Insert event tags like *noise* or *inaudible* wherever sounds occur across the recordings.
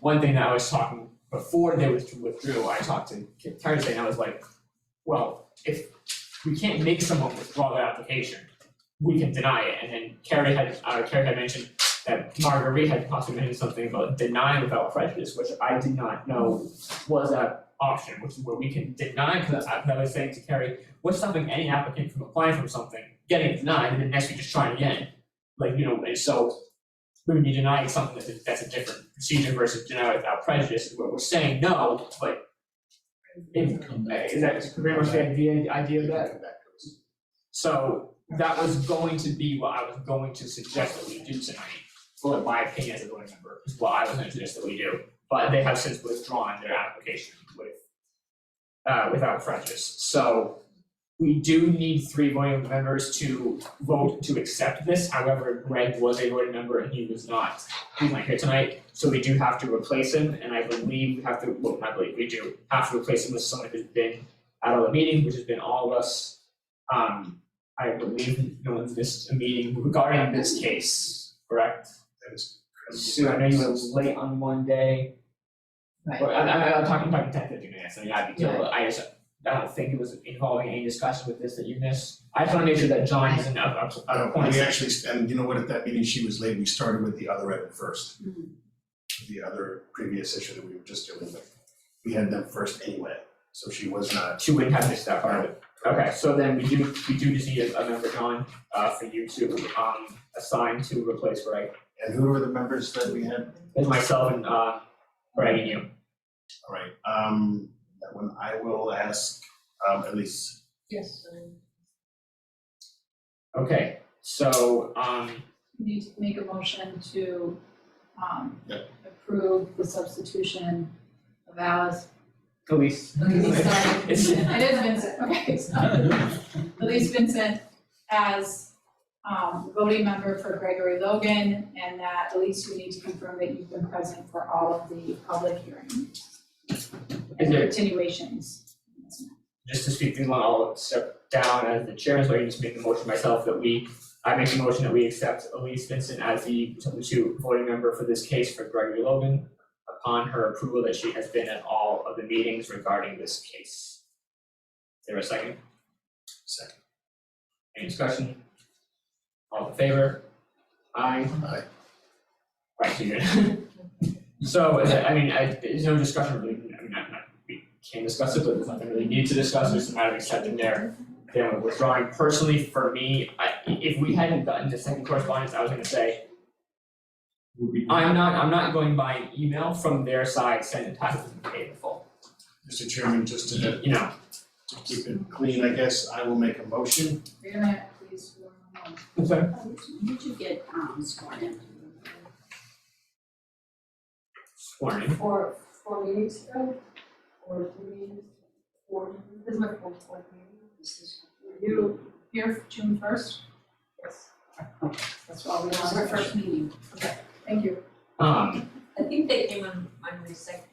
one thing that I was talking, before they with- withdrew, I talked to Kip Thursday, and I was like, well, if we can't make someone withdraw their application, we can deny it, and then Carrie had, uh, Carrie had mentioned that Marguerite had possibly mentioned something about denying without prejudice, which I did not know was a option, which is where we can deny, because I, 'cause I was saying to Carrie, what's stopping any applicant from applying for something, getting it denied, and then next week just trying again? Like, you know, and so we would be denying something that's a, that's a different procedure versus deny without prejudice, where we're saying no, but if- is that pretty much the idea, idea of that? So that was going to be what I was going to suggest that we do tonight, well, in my opinion as a board member, is what I was gonna suggest that we do. But they have since withdrawn their application with, uh, without prejudice, so we do need three voting members to vote to accept this, however, Greg was a voting member and he was not, he's not here tonight, so we do have to replace him, and I believe we have to, well, not believe, we do have to replace him with someone who's been out of the meeting, which has been all of us. Um, I believe no one's missed a meeting regarding this case, correct? That is. Sue, I know you were late on one day, Right. but I, I, I'm talking about ten fifteen minutes, I mean, I'd be too, I just, I don't think it was involving any discussion with this that you missed. I just wanna make sure that John isn't out of, out Uh, of point. we actually, and you know what, at that meeting, she was late, we started with the other item first. The other previous issue that we were just dealing with, we had them first anyway, so she was not. She wouldn't have missed that part of it. Okay, so then we do, we do just need a a member, John, uh, for you to, um, assign to replace Greg. And who were the members that we had? There's myself and, uh, Greg and you. All right, um, that one, I will ask, um, at least, Yes. Okay, so, um, We need to make a motion to, um, Yeah. approve the substitution of Alice. Elise. Elise, sorry. It's- It is Vincent, okay, sorry. Elise Vincent as, um, voting member for Gregory Logan, and that Elise, you need to confirm that you've been present for all of the public hearings and there- continuations. just to speak through one, I'll step down as the chair, so I can just make the motion myself that we, I make the motion that we accept Elise Vincent as the substitute voting member for this case for Gregory Logan upon her approval that she has been at all of the meetings regarding this case. Is there a second? second, Any discussion? All in favor? Aye. Aye. Right, so you're *laughs* So, is it- I mean, I, there's no discussion really, I mean, not, not, we can discuss it, but there's nothing really need to discuss, it's a matter of accepting their, their withdrawing. Personally, for me, I, if we hadn't gotten to second correspondence, I was gonna say, I'm not, I'm not going by an email from their side, send it to the table, Mr. Chairman, just to, to you know, keep it clean, I guess, I will make a motion. Wait a minute, please, one moment. Oh, Did you get um sworn in? sworn in. Four, four meetings ago, or three meetings, four, this is my fourth, fourth meeting. This is You, Here, June first, yes. that's all we That was want. our first meeting. Thank you. Um, I think they came on, on my second.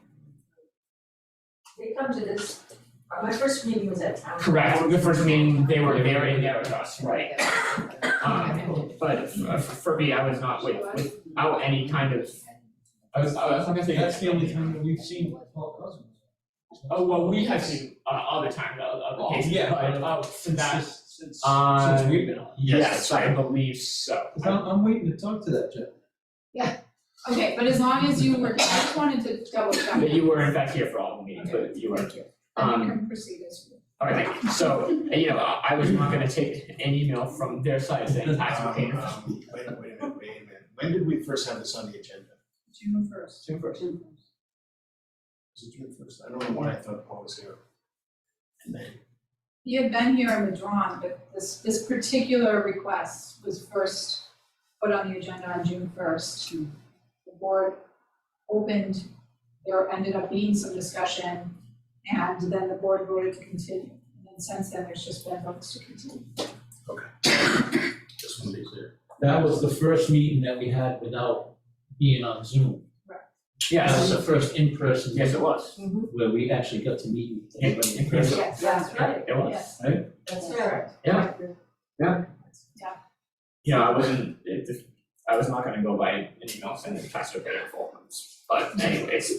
They come to this, uh, my first meeting was at town. correct, the first meeting, they were, they were in there with us, right? Um, but f- for me, I was not with, without any kind of, I was, I was not gonna say. That's the only time that we've seen Paul Cousins. Oh, well, we have seen, uh, other times, other, Oh, other cases, yeah, but, but- uh, since that, Since, since, Uh, since we've been on. Um, yes, I believe so. Cause I'm, I'm waiting to talk to that Jeff. Okay, but as long as you were, I just wanted to double check. But you were in fact here for all the meetings, but you weren't here. Then you Um, can proceed as you. alright, thank you. so, you know, I, I was not gonna take an email from their side saying tax Um, payer. um, Wait, wait a minute, wait a minute, when did we first have this on the agenda? June first. June first. Was it June first? I don't know why I thought Paul was here. And then, You had been here and withdrawn, but this, this particular request was first put on the agenda on June first. The board opened, there ended up being some discussion, and then the board voted to continue. And then since then, there's just been votes to continue. just want to be clear. That was the first meeting that we had without being on Zoom. That was Yes, the first in-person yes, it was. where we actually got to meet everybody in person. Yes, That's right, It was. Yes. that's right. Yeah. Yeah, you know, I wasn't, it, I was not gonna go by an email sending faster than a full months. But anyway, it's